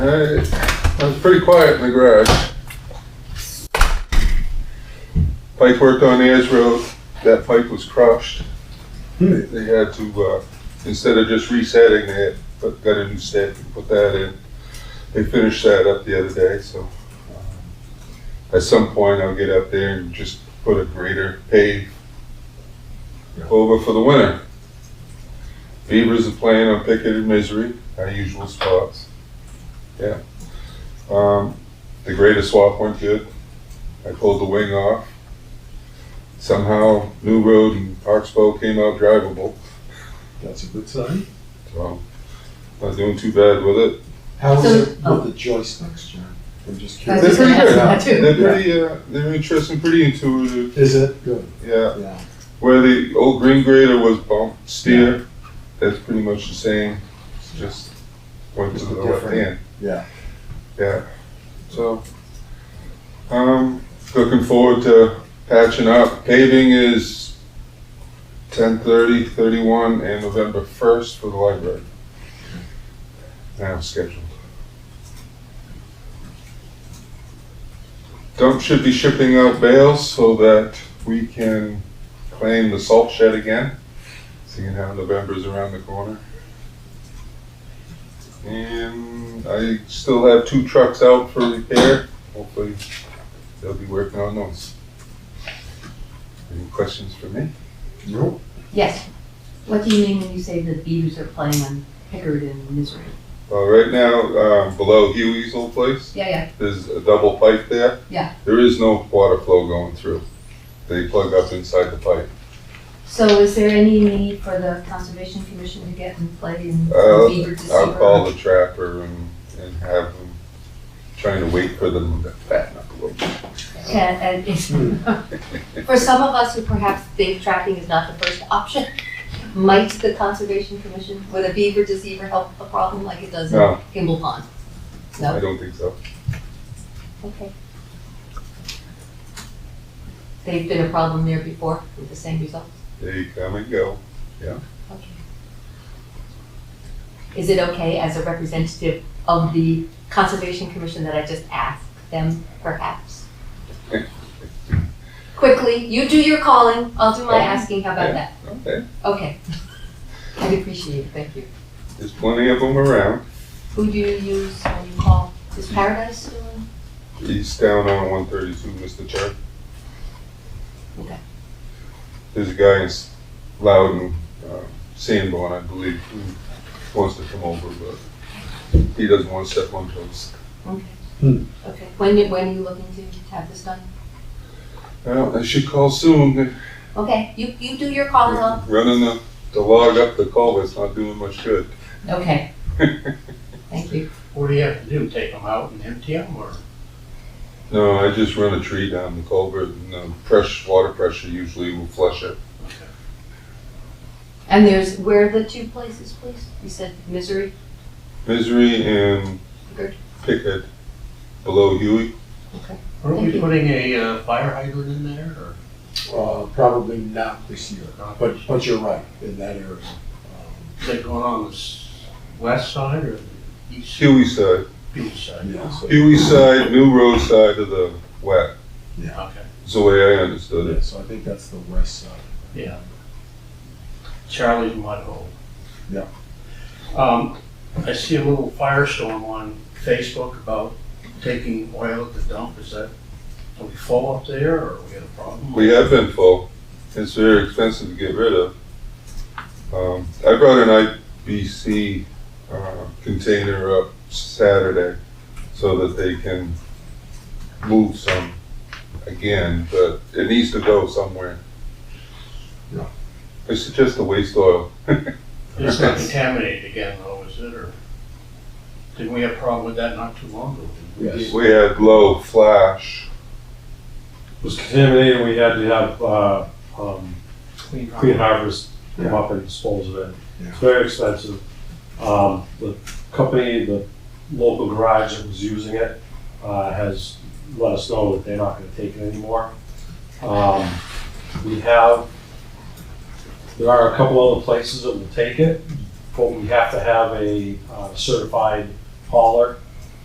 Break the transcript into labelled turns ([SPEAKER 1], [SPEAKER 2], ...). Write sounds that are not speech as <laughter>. [SPEAKER 1] Uh, I was pretty quiet in the garage. Pipe worked on Ayers Road. That pipe was crushed. They, they had to, uh, instead of just resetting it, but got a new set and put that in. They finished that up the other day, so. um, At some point, I'll get up there and just put a grader pave over for the winter. Beavers are playing on Picket and Misery, our usual spots. Yeah. Um, the grader swap went good. I pulled the wing off. Somehow, New Road and Oxbow came out drivable,
[SPEAKER 2] That's a good sign.
[SPEAKER 1] so not doing too bad with it.
[SPEAKER 2] How is
[SPEAKER 3] So-
[SPEAKER 2] it with the joysticks, John? I'm just
[SPEAKER 3] I
[SPEAKER 1] They're
[SPEAKER 3] was
[SPEAKER 2] curious.
[SPEAKER 1] pretty
[SPEAKER 3] just gonna ask
[SPEAKER 1] good.
[SPEAKER 3] that too.
[SPEAKER 1] They're pretty, uh, they're interesting, pretty intuitive,
[SPEAKER 2] Is it? Good,
[SPEAKER 1] yeah.
[SPEAKER 2] yeah.
[SPEAKER 1] Where the old green grader was bump steer, that's pretty much the same, just went to
[SPEAKER 2] Just
[SPEAKER 1] the
[SPEAKER 2] a
[SPEAKER 1] left
[SPEAKER 2] different-
[SPEAKER 1] hand.
[SPEAKER 2] yeah.
[SPEAKER 1] Yeah, so, um, looking forward to patching up. Paving is 10:30, 31, and November first for the library. Now scheduled. Dump should be shipping out bales so that we can claim the salt shed again, seeing how November's around the corner. And I still have two trucks out for repair. Hopefully, they'll be working on those. Any questions for me?
[SPEAKER 2] Nope.
[SPEAKER 3] Yes. What do you mean when you say the beavers are playing on Pickard and Misery?
[SPEAKER 1] Well, right now, um, below Huey's old place,
[SPEAKER 3] Yeah, yeah,
[SPEAKER 1] there's a double pipe there.
[SPEAKER 3] Yeah.
[SPEAKER 1] There is no water flow going through. They plug up inside the pipe.
[SPEAKER 3] so is there any need for the Conservation Commission to get in play and
[SPEAKER 1] Uh,
[SPEAKER 3] for beaver to
[SPEAKER 1] I'll
[SPEAKER 3] <laughs>
[SPEAKER 1] call
[SPEAKER 3] super?
[SPEAKER 1] the trapper and, and have them, trying to wait for them to fatten up a little bit.
[SPEAKER 3] And, and for some of us who perhaps think tracking is not the first option, might the Conservation Commission, would a beaver deceiver help a problem like it does in
[SPEAKER 1] No,
[SPEAKER 3] Kimball Pond?
[SPEAKER 1] I
[SPEAKER 3] No?
[SPEAKER 1] don't think so.
[SPEAKER 3] Okay. They've been a problem there before with the same result?
[SPEAKER 1] They come and go.
[SPEAKER 3] Okay. Is it okay as a representative of the Conservation Commission that I just ask them perhaps? Quickly, you do your calling, I'll do my asking, how about that?
[SPEAKER 1] Okay,
[SPEAKER 3] Okay. I'd appreciate it, thank you.
[SPEAKER 1] there's plenty of them around.
[SPEAKER 3] Who do you use when you call? Is Paradise still in?
[SPEAKER 1] He's down on one thirty-two, Mr. Chair.
[SPEAKER 3] Okay.
[SPEAKER 1] There's a guy in S- Loudon, uh, Sanborn, I believe, who wants to come over, but he doesn't want to step on toes.
[SPEAKER 2] Hmm.
[SPEAKER 3] Okay. Okay, when, you- when are you looking to have this done?
[SPEAKER 1] Well, I should call soon.
[SPEAKER 3] Okay, you, you do your calling, I'll
[SPEAKER 1] Running the, the log up the culvert's not doing much good.
[SPEAKER 3] Okay. Thank you.
[SPEAKER 4] What do you have to do, take them out and empty them, or?
[SPEAKER 1] No, I just run a tree down the culvert and the fresh water pressure usually will flush it.
[SPEAKER 3] And there's, where are the two places, please? You said Misery?
[SPEAKER 1] Misery and
[SPEAKER 3] Good.
[SPEAKER 1] Pickett below Huey.
[SPEAKER 4] Aren't
[SPEAKER 3] Thank
[SPEAKER 4] we
[SPEAKER 3] you.
[SPEAKER 4] putting a uh, fire hydrant in there, or?
[SPEAKER 2] Uh, probably not this year,
[SPEAKER 4] Not
[SPEAKER 2] but,
[SPEAKER 4] this year.
[SPEAKER 2] but you're right, in that area. Um,
[SPEAKER 4] Is that going on the s- west side or the east?
[SPEAKER 1] Huey side.
[SPEAKER 4] East side.
[SPEAKER 2] Um, Yeah, so,
[SPEAKER 1] Huey side, New Road side of the wet,
[SPEAKER 4] Okay,
[SPEAKER 1] is the way I understood
[SPEAKER 2] yeah,
[SPEAKER 1] it.
[SPEAKER 2] so I think that's the west side.
[SPEAKER 4] yeah. Charlie's Mud Hole.
[SPEAKER 2] Yeah.
[SPEAKER 4] Um, I see a little firestorm on Facebook about taking oil at the dump, is that, are we full up there, or we have a problem?
[SPEAKER 1] We have been full, it's very expensive to get rid of. Um, I brought an IBC, uh, container up Saturday so that they can move some again, but it needs to go somewhere.
[SPEAKER 2] Yeah.
[SPEAKER 1] I suggest the waste oil.
[SPEAKER 4] It's not contaminated again, though, is it, or? Didn't we have a problem with that not too long ago?
[SPEAKER 2] Yes.
[SPEAKER 1] We had low flash,
[SPEAKER 5] was contaminated, we had to have, uh, um,
[SPEAKER 4] Clean rock.
[SPEAKER 5] Clean Harbors come
[SPEAKER 2] Yeah.
[SPEAKER 5] up and dispose of it.
[SPEAKER 2] Yeah.
[SPEAKER 5] It's very expensive. Um, the company, the local garage that was using it, uh, has let us know that they're not gonna take it anymore. Um, we have, there are a couple other places that will take it, but we have to have a uh, certified hauler